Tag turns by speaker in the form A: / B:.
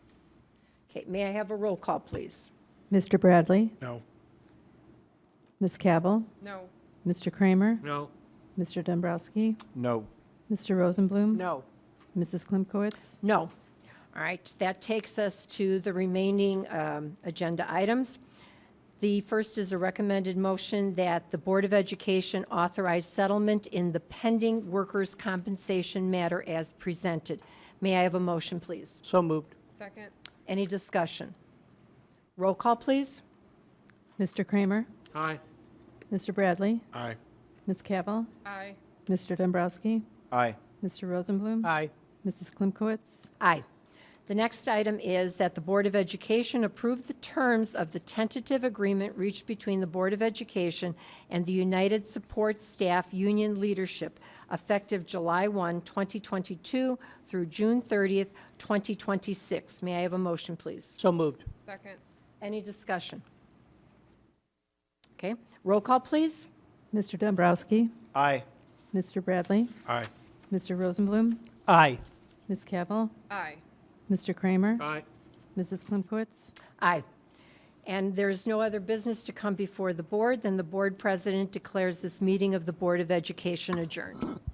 A: Okay, may I have a roll call, please?
B: Mr. Bradley,
C: No.
B: Ms. Cavill,
D: No.
B: Mr. Kramer,
E: No.
B: Mr. Dombrowski,
C: No.
B: Mr. Rosenblum.
D: No.
B: Mrs. Klimkowitz.
D: No.
A: All right, that takes us to the remaining um, agenda items. The first is a recommended motion that the Board of Education authorize settlement in the pending workers' compensation matter as presented. May I have a motion, please?
D: So moved. Second?
A: Any discussion? Roll call, please.
B: Mr. Kramer,
E: Aye.
B: Mr. Bradley,
C: Aye.
B: Ms. Cavill,
D: Aye.
B: Mr. Dombrowski,
C: Aye.
B: Mr. Rosenblum.
D: Aye.
B: Mrs. Klimkowitz.
A: Aye. The next item is that the Board of Education approve the terms of the tentative agreement reached between the Board of Education and the United Support Staff Union Leadership effective July 1, 2022 through June 30th, 2026. May I have a motion, please?
D: So moved. Second?
A: Any discussion? Okay, roll call, please.
B: Mr. Dombrowski,
C: Aye.
B: Mr. Bradley,
C: Aye.
B: Mr. Rosenblum,
D: Aye.
B: Ms. Cavill,
D: Aye.
B: Mr. Kramer,
E: Aye.
B: Mrs. Klimkowitz.
A: Aye. And there is no other business to come before the board, then the board president declares this meeting of the Board of Education adjourned.